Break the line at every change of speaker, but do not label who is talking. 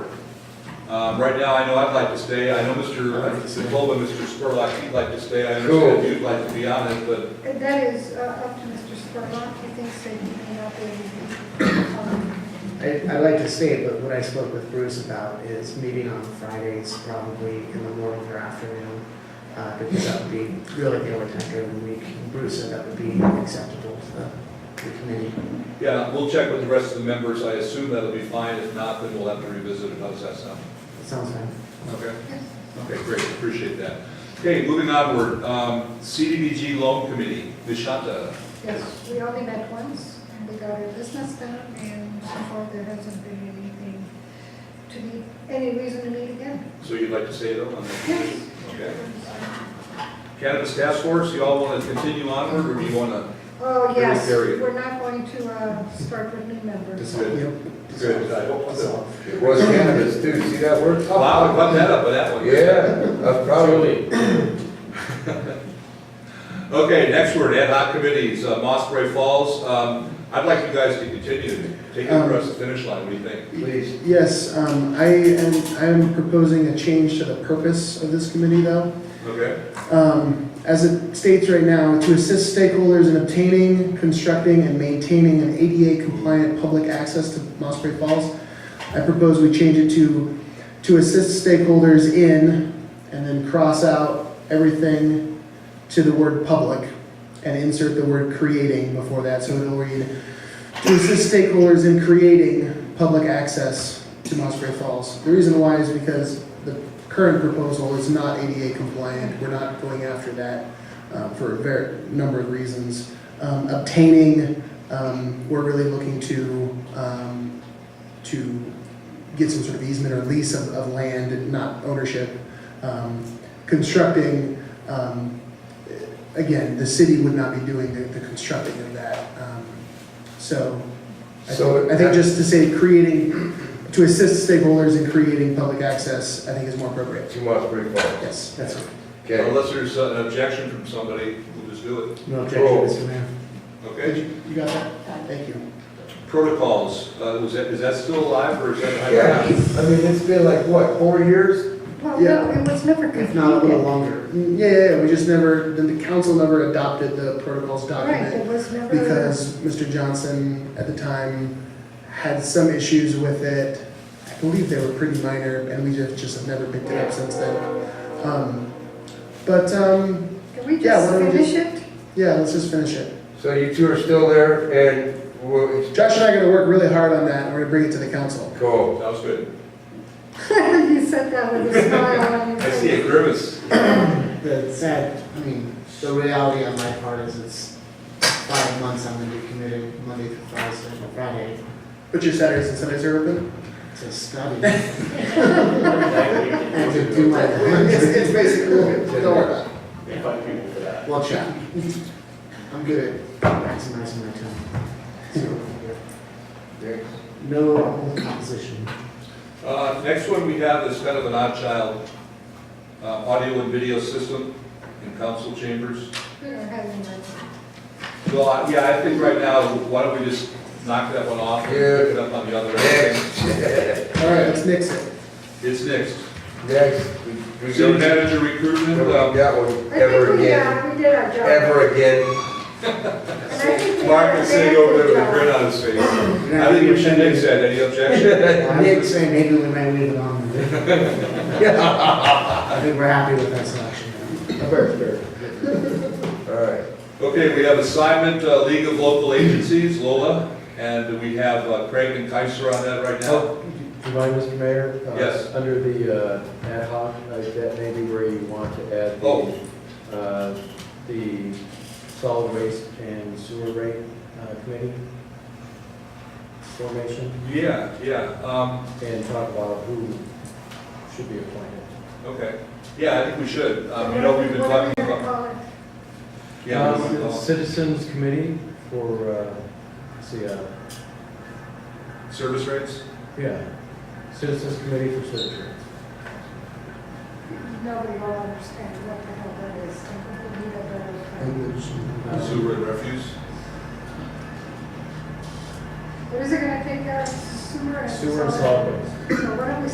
Um, right now, I know I'd like to stay, I know Mr. McCullough, Mr. Spurlock, he'd like to stay, I understand
Cool.
you'd like to be on it, but
And that is uh, up to Mr. Spurlock, he thinks that he may not be able to. um,
I, I like to say, but what I spoke with Bruce about is meeting on Fridays, probably in the morning or afternoon, uh, because that would be really the only time during the week. Bruce said that would be acceptable to the- the committee.
Yeah, we'll check with the rest of the members, I assume that'll be fine, if not, then we'll have to revisit it, how does that sound?
Sounds fine.
Okay. Okay, great, appreciate that. Okay, moving onward, um, CDBG Loan Committee, Ms. Shanta.
Yes, we only met once, and we got our business done, and so far there hasn't been anything to be, any reason to meet again.
So you'd like to say though on that?
Yes.
Okay. Cannabis Task Force, you all want to continue onward, or do you want to?
Oh, yes,
Very good.
we're not going to uh, start with new members.
Good, I hope so.
Dissolve.
It was cannabis too, see that word?
Wow, cut that up with that one.
Yeah, that's probably,
Okay, next word, ad hoc committees, uh, Mossbury Falls, um, I'd like you guys to continue, take it across the finish line, what do you think?
please.
Yes, um, I am, I am proposing a change to the purpose of this committee though.
Okay,
um, as it states right now, to assist stakeholders in obtaining, constructing, and maintaining an ADA-compliant public access to Mossbury Falls, I propose we change it to, to assist stakeholders in, and then cross out everything to the word public, and insert the word creating before that, so it'll read, to assist stakeholders in creating public access to Mossbury Falls. The reason why is because the current proposal is not ADA compliant. We're not going after that uh, for a very, number of reasons. Um, Obtaining, um, we're really looking to, um, to get some sort of easement or lease of, of land, not ownership. Um, Constructing, um, again, the city would not be doing the, the constructing of that. Um, So I
So-
think, I think just to say creating, to assist stakeholders in creating public access, I think is more appropriate.
Too much pretty far.
Yes, that's it.
Okay,
unless there's an objection from somebody, we'll just do it,
No
objection,
Mr. Mayor.
okay?
You got that? Thank you.
protocols, uh, was that, is that still alive or is that?
yeah, I mean, it's been like, what, four years?
Well,
Yeah.
no, it was never
If not, a little
completed.
longer. Mm, Yeah, yeah, yeah, we just never, the- the council never adopted the protocols
Right, it
document
was never.
because Mr. Johnson at the time had some issues with it. I believe they were pretty minor and we just, just have never picked it up since then. Um, But, um,
Can we
Yeah,
just
why don't we
finish it?
yeah, let's just finish it.
So you two are still there and we'll,
Josh and I are gonna work really hard on that and we're gonna bring it to the council.
go.
That was good.
You said that with a smile on your
I see a
face.
grimace.
The sad, I mean, the reality on my part is it's five months I'm gonna be committed Monday through Thursday, Friday
But your Saturdays and Sundays are open?
to study. And to do my
It's,
homework.
it's basically, don't worry about it.
Well, check. I'm good at maximizing my time. So,
Okay.
No opposition.
Uh, next one we have is kind of an odd child, uh, audio and video system in council chambers.
We don't have any money.
Well, I- yeah, I think right now, why don't we just knock that one off and pick it up on the other end?
Next,
All right, let's nix it.
It's next.
next. we- we
City
don't-
manager recruitment,
Nobody
uh,
got one
I think
ever
we,
again,
uh, we did our job.
ever again.
And I think we
Mark
did
is
a
sitting over there with a
very
grin
good
on his face. I think we should nix that, any objection?
I was gonna say, maybe we might leave it on. I think we're happy with that selection.
All right.
Okay, we have assignment, uh, League of Local Agencies, Lola, and we have uh, Craig and Kaiser on that right now.
Do you mind, Mr. Mayor? Uh,
Oh. Yes.
Under the uh, ad hoc, uh, that may be where you want to add
Oh.
the, uh, the solid waste and sewer rate uh, committee formation,
Yeah, yeah, um,
and talk about who should be appointed.
okay. Yeah, I think we should. Um,
job.
you know, we've been talking
What are we gonna
about,
call it?
yeah, we-
Um,
uh,
Citizens Committee for, uh, let's see, uh,
service rates.
yeah, Citizens Committee for Citizens.
Nobody will understand what the hell that is. We need a better-
Sewer and refuse.
What is it gonna take out sewer and?
Sewer and
solid-
solid waste.
So why don't we